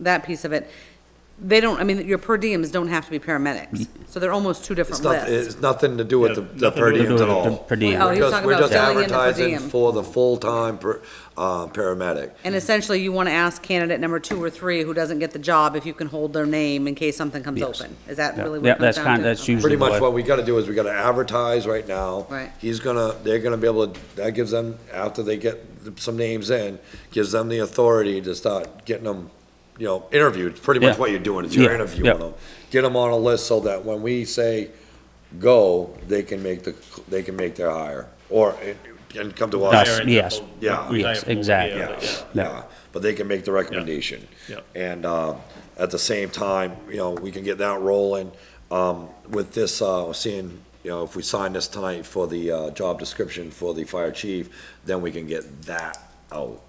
that piece of it, they don't, I mean, your per diems don't have to be paramedics, so they're almost two different It's not, lists. it's nothing to do with the, the per Nothing to do diems at with the all. Per diem. Oh, We're he was just- talking we're about just filling in the per advertising diem. For the full-time per, uh, paramedic. And essentially, you want to ask candidate number two or three who doesn't get the job if you can hold their name in case something comes open. Is that Yeah. really what Yeah, it comes that's down kind- to? that's Okay. usually- Pretty much what- what we gotta do is we gotta advertise right now. Right. He's gonna, they're gonna be able to, that gives them, after they get some names in, gives them the authority to start getting them, you know, interviewed, pretty much Yeah. what you're doing, is you're Yeah, interviewing yeah. them. Get them on a list so that when we say go, they can make the, they can make their hire, or, and- and come to us. Us, yes. Yeah. Yes, exactly. Yeah, Yeah. yeah, but they can make the recommendation. Yeah. And, uh, at the same time, you know, we can get that rolling, um, with this, uh, we're seeing, you know, if we sign this tonight for the, uh, job description for the fire chief, then we can get that out,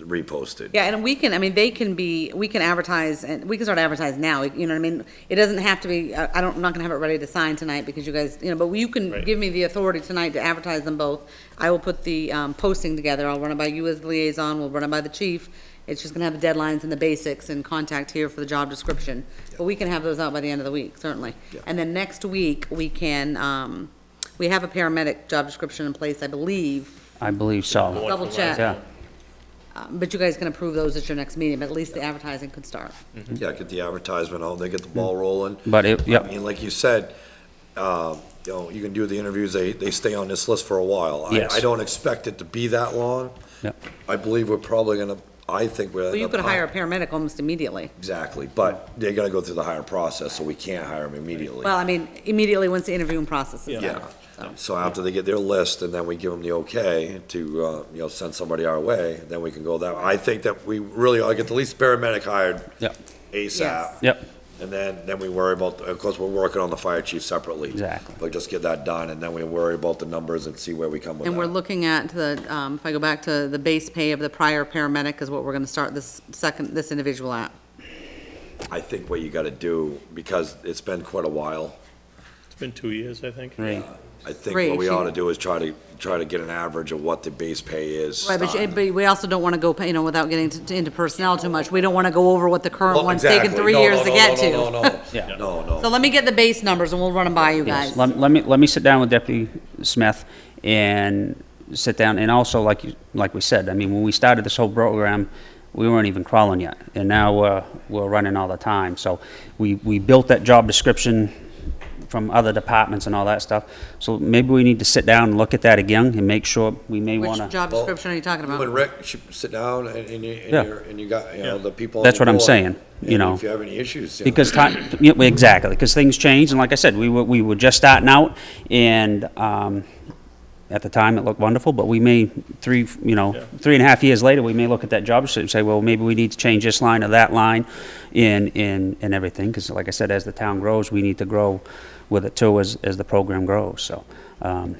reposted. Yeah, and we can, I mean, they can be, we can advertise, and we can start advertising now, you know what I mean? It doesn't have to be, I I don't, I'm not gonna have it ready to sign tonight because you guys, you know, but you can Right. give me the authority tonight to advertise them both. I will put the, um, posting together, I'll run it by you as the liaison, we'll run it by the chief. It's just gonna have the deadlines and the basics and contact here for the job description. But we can have those out by the end of the week, certainly. Yeah. And then next week, we can, um, we have a paramedic job description in place, I believe, I believe so. Double check. Yeah, Uh, But you guys can approve those at your next meeting, but at least the advertising could start. Yeah, get the advertisement out, they get the ball rolling. but it, I yep, mean, like you said, uh, you know, you can do the interviews, they, they stay on this list for a while. I- Yes. I don't expect it to be that long. Yeah. I believe we're probably gonna, I think we're. Well, you could hire a paramedic almost immediately. Exactly, but they gotta go through the hiring process, so we can't hire them immediately. Well, I mean, immediately once the interviewing process is done. Yeah, so after they get their list, and then we give them the okay to, uh, you know, send somebody our way, then we can go that, I think that we really ought to get the least paramedic hired yep, ASAP. yep, And then, then we worry about, of course, we're working on the fire chief separately. Exactly. But just get that done, and then we worry about the numbers and see where we come with And we're that. looking at the, um, if I go back to the base pay of the prior paramedic is what we're gonna start this second, this individual at. I think what you gotta do, because it's been quite a while, It's been two years, I think. three. I think Right, what we she- ought to do is try to, try to get an average of what the base pay is. Right, but, you- starting. but we also don't wanna go, you know, without getting to- into personnel too much, we don't wanna go over what the current Well, one's taken exactly. three No, years no, to no, get no, No, to. no, Yeah. no, no, So no. let me get the base numbers and we'll run them by you guys. Yes, let, let me, let me sit down with Deputy Smith and sit down, and also, like you, like we said, I mean, when we started this whole program, we weren't even crawling yet, and now, uh, we're running all the time, so we, we built that job description from other departments and all that stuff, so maybe we need to sit down and look at that again and make sure, we may wanna. Which job Well, description are you talking You and about? Rick should sit down and, and you, Yeah. and you're, and you got, you know, Yeah. the people. on That's your what I'm board. saying, you And know. If you have any issues, you know. Because time, yeah, well, exactly, because things change, and like I said, we were, we were just starting out, and, um, at the time, it looked wonderful, but we may, three, you know, Yeah. three and a half years later, we may look at that job description and say, well, maybe we need to change this line or that line in, in, in everything, because like I said, as the town grows, we need to grow with it too, as, as the program grows, so, um,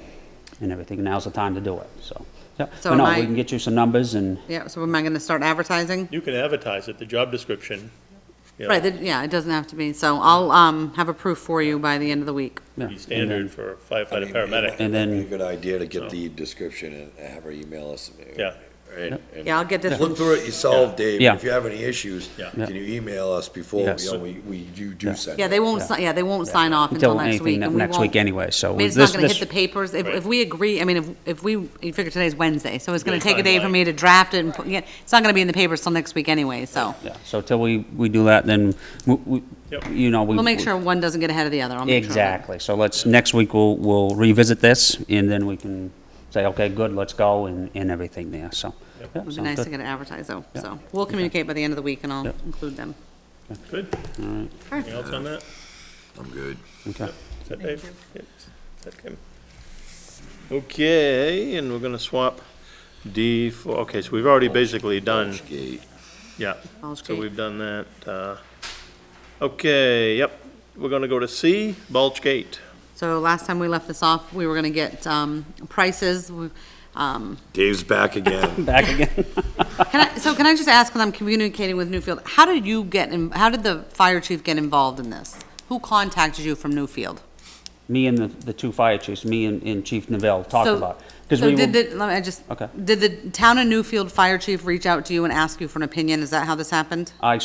and everything, now's the time to do it, so. yeah. So But no, am I- We can get you some numbers and, Yeah, so am I gonna start advertising? You can advertise it, the job description. you know, Right, that- yeah, it doesn't have to be, so I'll, um, have a proof for you by the end of the week. yeah, Be and then- standard for I mean, firefighter, it paramedic. might- And it'd be then- A good idea to get the description and have her email us. Yeah. And, and Yeah, I'll get this one. look through it yourself, Dave. Yeah. If you have any issues, Yeah. can you email us before, Yes. you know, we, we, you do send. Yeah, it. they won't, si- yeah, they won't sign off until until next week. anything, and we next week won't- anyway, so. I mean, with it's this- not gonna this- hit the papers. If, Right. if we agree, I mean, if, if we, you figure today's Wednesday, so it's gonna Yeah, take a day for timeline. me to draft it and, put- yeah, it's not gonna be in the papers till next week anyway, so. Yeah, so till we, we do that, then, we- we- Yep. you know, we. We'll make sure one doesn't get ahead of the other. I'll make sure. of it. Exactly, so let's, next week, we'll, we'll revisit this, and then we can say, okay, good, let's go, and, and everything there, so. Yeah, It'd be sounds nice to good. get it advertised though, Yeah. so. We'll communicate by the end of the week and I'll Yeah. include them. Good. Anything else on that? I'm good. Okay. Is that Dave? Yep. Is that Kim? Okay, and we're gonna swap D for, okay, so we've already basically done, Gate. yeah, Bulge so gate. we've done that. uh, Okay, yep, we're gonna go to C, Bulge Gate. So last time we left this off, we were gonna get, um, prices. We- Um, Dave's back again. Back again, can I, so can I just ask, when I'm communicating with Newfield, how did you get, in- how did the fire chief get involved in this? Who contacted you from Newfield? me and the, the two fire chiefs, me and, and Chief Neville talked So- about, because So we did were, the, let me, I just, Okay. did the town of Newfield Fire Chief reach out to you and ask you for an opinion? Is that how this happened? I